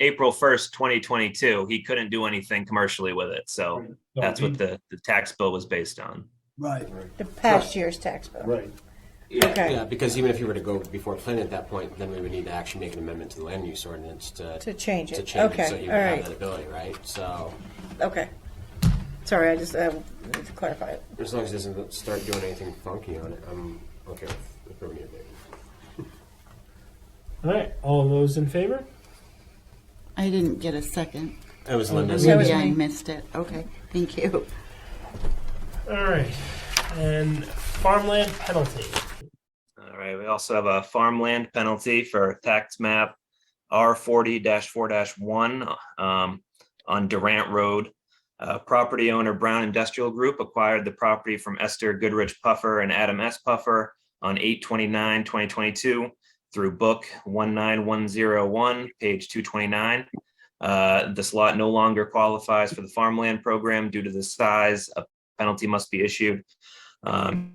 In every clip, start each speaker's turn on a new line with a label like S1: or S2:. S1: April first, twenty twenty-two, he couldn't do anything commercially with it. So that's what the, the tax bill was based on.
S2: Right,
S3: The past year's tax bill.
S2: right.
S3: Okay.
S4: Yeah, because even if you were to go before planning at that point, then we would need to actually make an amendment to the land use ordinance to.
S3: To change it.
S4: To change
S3: Okay,
S4: it, so you would
S3: all
S4: have
S3: right.
S4: that ability, right? So,
S3: Okay. Sorry, I just, uh, need to clarify it.
S4: as long as it doesn't start doing anything funky on it, I'm okay with approving it.
S5: All right, all those in favor?
S6: I didn't get a second.
S4: That was Linda's.
S3: That was
S6: Maybe I
S3: me.
S6: missed it. Okay, thank you.
S5: All right, and farmland penalty.
S1: All right, we also have a farmland penalty for tax map R forty four one um on Durant Road. Uh, property owner Brown Industrial Group acquired the property from Esther Goodrich Puffer and Adam S. Puffer on 829-2022 through book one nine one zero one, page two twenty-nine. Uh, this lot no longer qualifies for the farmland program due to the size. A penalty must be issued. Um,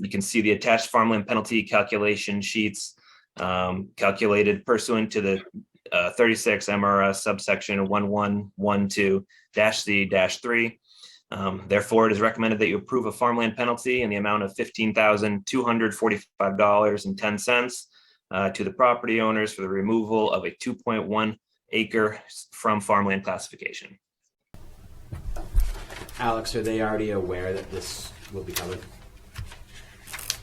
S1: you can see the attached farmland penalty calculation sheets um, calculated pursuant to the uh, 36 MRS subsection 1112-C-3. Um, Therefore, it is recommended that you approve a farmland penalty in the amount of $15,245.10 uh, to the property owners for the removal of a 2.1 acre from farmland classification.
S4: Alex, are they already aware that this will be coming?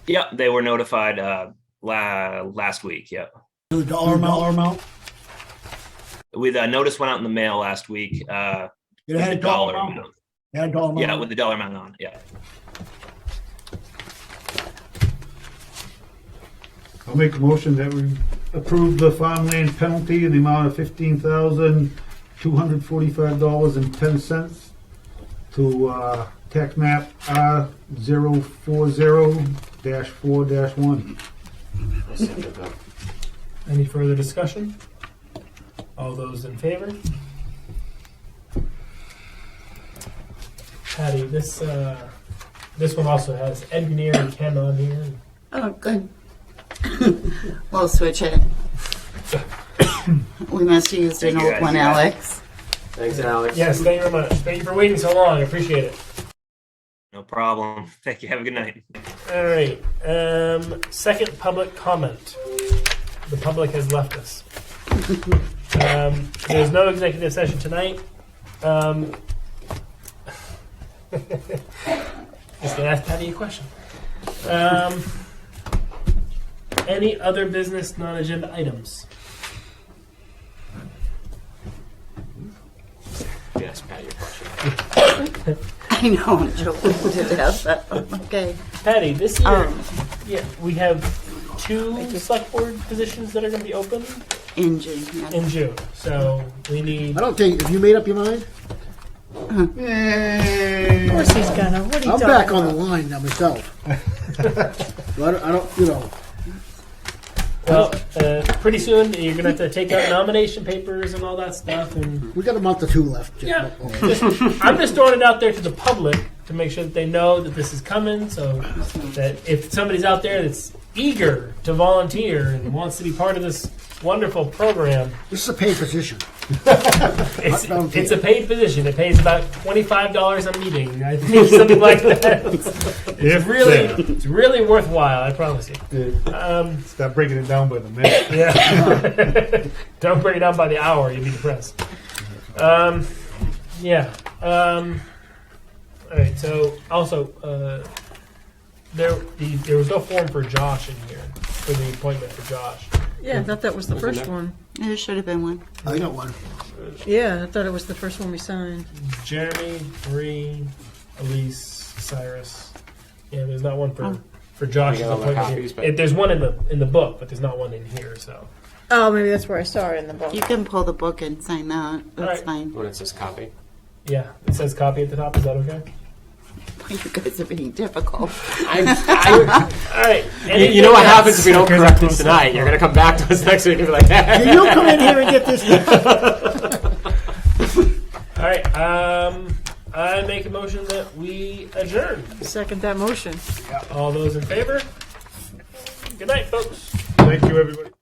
S1: Yep, they were notified uh, la- last week, yep.
S2: The dollar amount, dollar amount?
S1: With a notice went out in the mail last week. uh,
S2: It had a
S1: with the
S2: dollar amount.
S1: amount.
S2: It had a dollar amount.
S1: Yeah, with the dollar amount on, yeah.
S7: I'll make a motion that we approve the farmland penalty in the amount of fifteen thousand, two hundred forty-five dollars and ten cents to, uh, tax map R zero four zero dash four dash one.
S4: I'll second that.
S5: Any further discussion? All those in favor? Patty, this, uh, this one also has Ed Grenier and Ken on here.
S6: Oh, good. We'll switch it. We must have used an
S1: Thank you,
S6: old one,
S1: guys.
S6: Alex.
S4: Thanks, Alex.
S5: Yes, thank you very much. Thank you for waiting so long. I appreciate it.
S1: No problem. Thank you. Have a good night.
S5: All right. Um, second public comment. The public has left us. Um, there's no executive session tonight. Um, just gonna ask Patty a question. Um, any other business non-agenda items?
S4: Yes, Pat, your question.
S6: I know, I'm joking to death, but, okay.
S5: Patty, this year
S6: Um,
S5: yeah, we have two select board positions that are going to be open
S6: engine, yeah.
S5: in June. So we need
S8: I don't think, have you made up your mind?
S3: Of course he's gonna, what are you
S8: I'm
S3: talking
S8: back on the
S3: about?
S8: line now myself. So I don't, I don't, you know,
S5: Well, uh, pretty soon you're gonna have to take out nomination papers and all that stuff, and
S8: we got a month or two left. Just-
S5: yeah, just- I'm just throwing it out there to the public to make sure that they know that this is coming, so that if somebody's out there that's eager to volunteer and wants to be part of this wonderful program,
S8: This is a paid position.
S5: it's,
S8: Not volunteer.
S5: it's a paid position. It pays about twenty five dollars a meeting, I think, something like that. It's, it's really, it's really worthwhile. I promise you. Um,
S7: Stop breaking it down by the minute.
S5: Yeah. Don't bring it down by the hour. You'd be depressed. Um, yeah. Um, all right. So also, uh, there the, there was no form for Josh in here for the appointment for Josh.
S3: Yeah, I thought that was the first one.
S6: There should have been one.
S8: I got one.
S3: Yeah, I thought it was the first one we signed.
S5: Jeremy, Bree, Elise, Cyrus. Yeah, there's not one for for Josh's
S4: We got all the
S5: appointment. here.
S4: copies, but-
S5: It- there's one in the in the book, but there's not one in here. So
S3: Oh, maybe that's where I saw it in the book.
S6: You can pull the book and sign that. That's
S5: Alright.
S6: fine.
S4: When it says copy.
S5: yeah, it says copy at the top. Is that okay?
S6: You guys are being difficult.
S5: All right.
S4: You, you know
S5: anything
S4: what
S5: else?
S4: happens if we don't correct this tonight? You're gonna come back to us next week and be like,
S8: Can you come in here and get this?
S5: All right. Um, I make a motion that we adjourn.
S3: Second that motion.
S5: All those in favor? Good night, folks.
S7: Thank you, everybody.